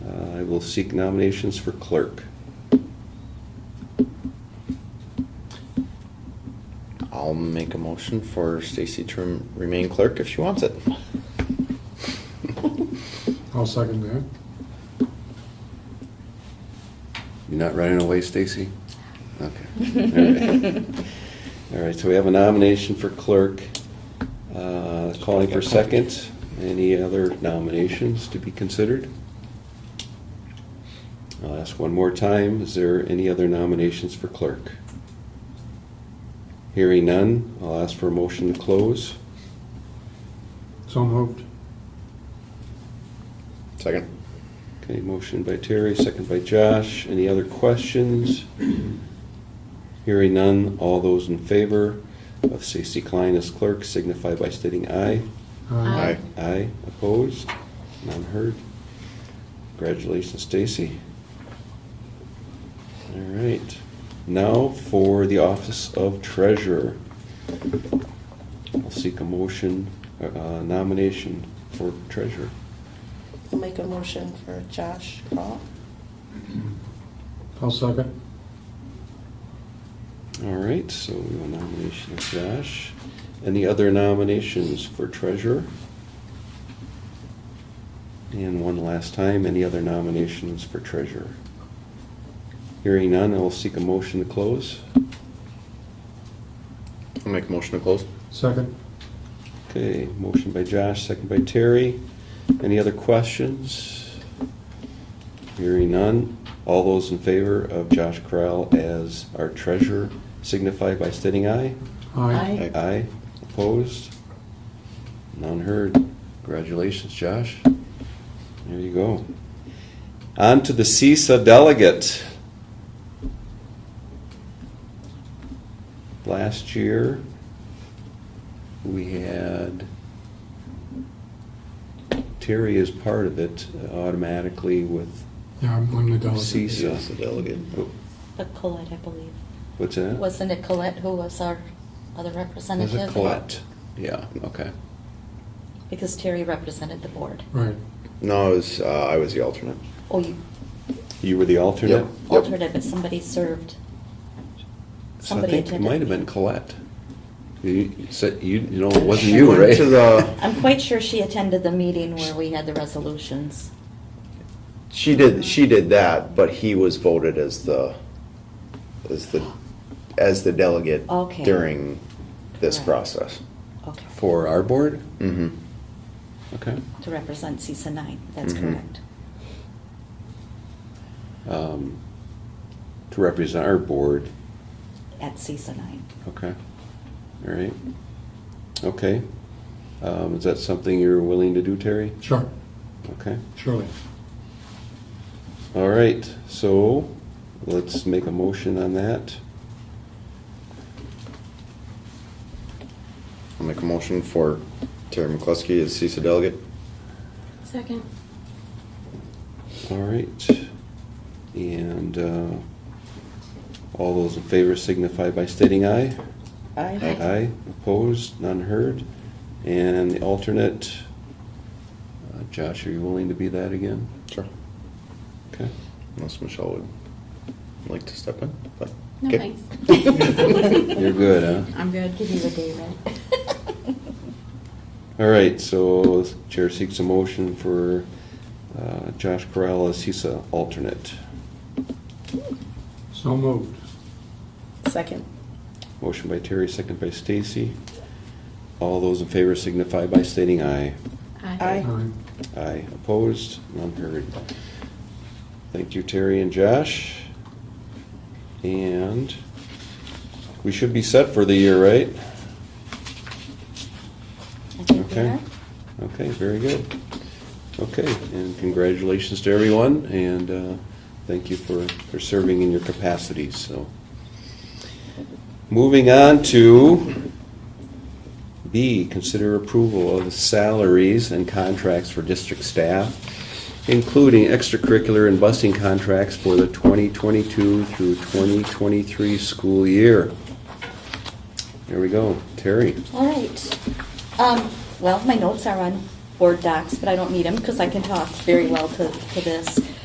Uh, will seek nominations for clerk. I'll make a motion for Stacy to rem- remain clerk if she wants it. I'll second that. You're not running away, Stacy? Okay. All right, so we have a nomination for clerk. Uh, Calling for second. Any other nominations to be considered? I'll ask one more time, is there any other nominations for clerk? Hearing none, I'll ask for a motion to close. So moved. Second. Okay, motion by Terry, second by Josh. Any other questions? Hearing none, all those in favor of Stacy Klein as clerk signify by stating aye. Aye. Aye. Aye, opposed, none heard. Congratulations, Stacy. All right, now for the office of treasurer. I'll seek a motion, uh, uh, nomination for treasurer. I'll make a motion for Josh Crawl. I'll second. All right, so we have a nomination of Josh. Any other nominations for treasurer? And one last time, any other nominations for treasurer? Hearing none, I will seek a motion to close. I'll make a motion to close. Second. Okay, motion by Josh, second by Terry. Any other questions? Hearing none. All those in favor of Josh Corral as our treasurer signify by stating aye. Aye. Aye. Aye. Opposed? None heard. Congratulations, Josh. There you go. On to the CISA delegate. Last year, we had Terry as part of it automatically with, Yeah, I'm I'm the delegate. Cease. Yes, Yes, the delegate. But Colette, I believe. what's that? Wasn't it Colette who was our other representative? Was it Colette? Yeah, okay. Because Terry represented the board. Right. No, it was, uh, I was the alternate. Oh, you You were the alternate? Yep. altered it, but somebody served. So I Somebody think it attended. might have been Colette. You you said, you, you know, it wasn't She you, went right? to the- I'm quite sure she attended the meeting where we had the resolutions. She did, she did that, but he was voted as the, as the, as the delegate Okay. during this Correct. process. Okay, For our board? Mm-hmm. Okay. to represent CISA nine, that's Mhm. Mm-hmm. correct. Um, To represent our board, At CISA nine. okay. All right. Okay. Um, Is that something you're willing to do, Terry? Sure, Okay. surely. All right, so let's make a motion on that. I'll make a motion for Terry McCluskey as CISA delegate. Second. All right. And uh, all those in favor signify by stating aye. Aye. Aye, opposed, none heard. And the alternate, uh, Josh, are you willing to be that again? Sure. Okay. Unless Michelle would like to step in, but. No, okay. thanks. You're good, huh? I'm good. Give you a day, right? All right, so Chair seeks a motion for uh, Josh Correll as CISA alternate. So moved. Second. Motion by Terry, second by Stacy. All those in favor signify by stating aye. Aye. Aye. Aye, opposed, none heard. Thank you, Terry and Josh. And we should be set for the year, right? I think we Okay. are. Okay, very good. Okay, and congratulations to everyone, and uh, thank you for, for serving in your capacities, so. Moving on to B, consider approval of salaries and contracts for district staff, including extracurricular and busing contracts for the 2022 through 2023 school year. There we go, Terry. All right. Um, well, my notes are on board docs, but I don't need them because I can talk very well to, to this.